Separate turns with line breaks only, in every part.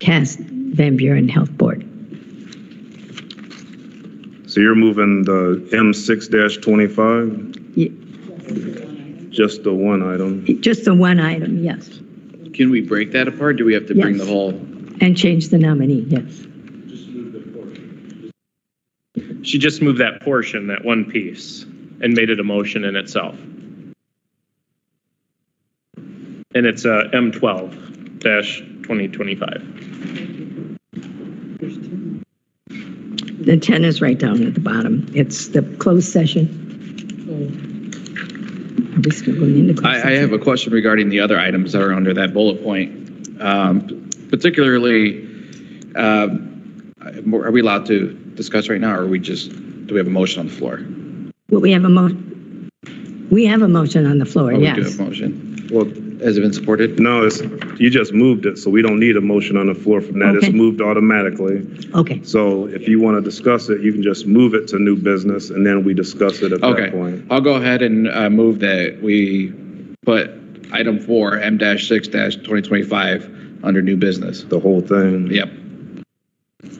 Cass Van Buren Health Board.
So you're moving the M6 twenty-five,
Y-
just the one item?
Just the one item, yes.
Can we break that apart? Do we have to bring the
Yes.
whole?
And change the nominee, yes.
She just moved that portion, that one piece, and made it a motion in itself. And it's uh, M12 dash 2025.
The 10 is right down at the bottom. It's the closed session. Are we still going into closed
I, I
session?
have a question regarding the other items that are under that bullet point. Um, Particularly, um, are we allowed to discuss right now, or are we just, do we have a motion on the floor?
Well, we have a mo, we have a motion on the floor,
Oh, We do
yes.
have a motion.
Well,
Has it been supported?
no, it's, you just moved it, so we don't need a motion on the floor from that. It's
Okay.
moved automatically.
Okay,
So if you want to discuss it, you can just move it to new business and then we discuss it at that
Okay,
point.
I'll go ahead and uh, move that we put item four, M dash six dash 2025, under new business.
The whole thing.
Yep,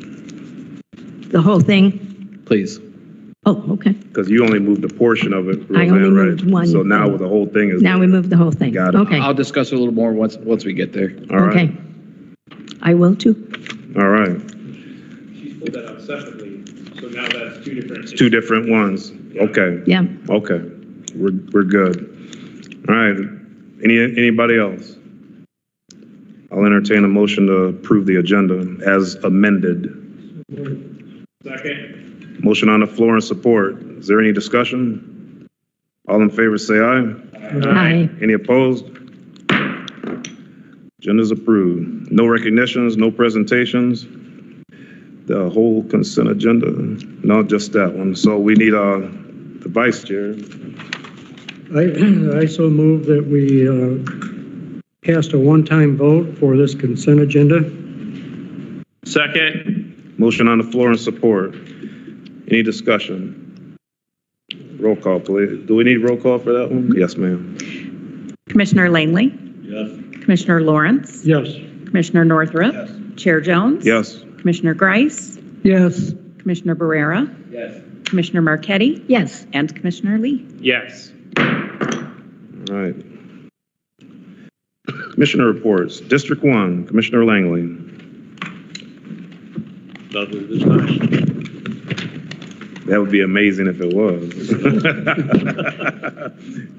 the whole thing?
please.
Oh, okay.
Because you only moved a portion of it,
I only
Roseanne, right?
moved one.
So now with the whole thing is.
Now we move the whole thing.
Got it.
Okay,
I'll discuss it a little more once, once we get there.
All right,
okay. I will too.
all right.
She pulled that out separately, so now that's two different.
Two different ones. Okay,
Yeah,
okay. We're, we're good. All right, any, anybody else? I'll entertain a motion to approve the agenda as amended.
Second.
Motion on the floor and support. Is there any discussion? All in favor, say aye.
aye.
Any opposed? Agenda's approved. No recognitions, no presentations. The whole consent agenda, no, just that one. So we need uh, the vice chair.
I, I so move that we uh, cast a one-time vote for this consent agenda.
Second.
Motion on the floor and support. Any discussion? Roll call, please. Do we need roll call for that one? Yes, ma'am.
Commissioner Langley? Commissioner Lawrence?
Yes.
Commissioner Northrup? Chair Jones?
Yes.
Commissioner Grice?
Yes.
Commissioner Barrera?
Yes.
Commissioner Marquetti?
Yes,
And Commissioner Lee?
Yes.
All right. Commissioner reports. District one, Commissioner Langley. That would be amazing if it was.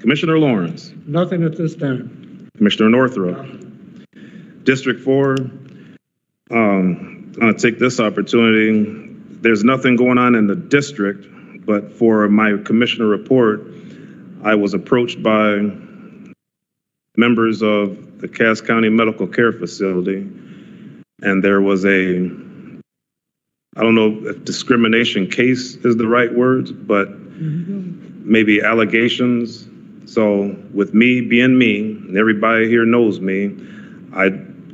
Commissioner Lawrence,
Nothing at this time.
Commissioner Northrup. District four, um, I'm gonna take this opportunity. There's nothing going on in the district, but for my commissioner report, I was approached by members of the Cass County Medical Care Facility, and there was a, I don't know if discrimination case is the right word, but maybe allegations. So with me being me, and everybody here knows me, I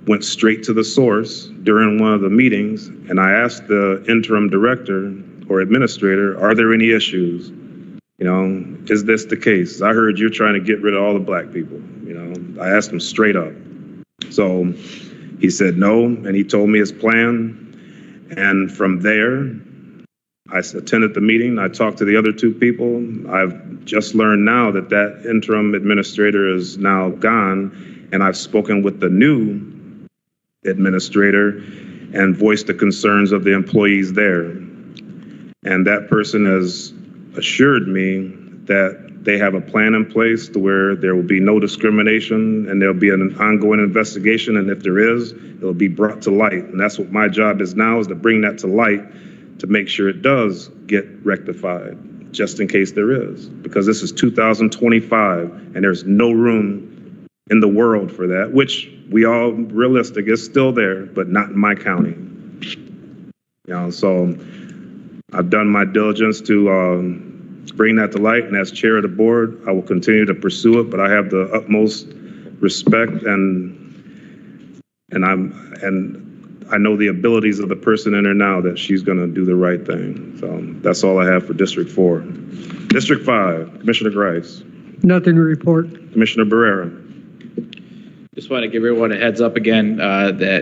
went straight to the source during one of the meetings, and I asked the interim director or administrator, are there any issues? You know, is this the case? I heard you're trying to get rid of all the black people, you know? I asked him straight up. So he said no, and he told me his plan. And from there, I s- attended the meeting, I talked to the other two people. I've just learned now that that interim administrator is now gone, and I've spoken with the new administrator and voiced the concerns of the employees there. And that person has assured me that they have a plan in place to where there will be no discrimination and there'll be an ongoing investigation, and if there is, it'll be brought to light. And that's what my job is now, is to bring that to light to make sure it does get rectified, just in case there is. Because this is 2025, and there's no room in the world for that, which we all realistic is still there, but not in my county. You know, so I've done my diligence to um, bring that to light, and as chair of the board, I will continue to pursue it, but I have the utmost respect and, and I'm, and I know the abilities of the person in her now that she's going to do the right thing. So that's all I have for District Four. District Five, Commissioner Grice,
Nothing to report.
Commissioner Barrera.
Just want to give everyone a heads up again uh, that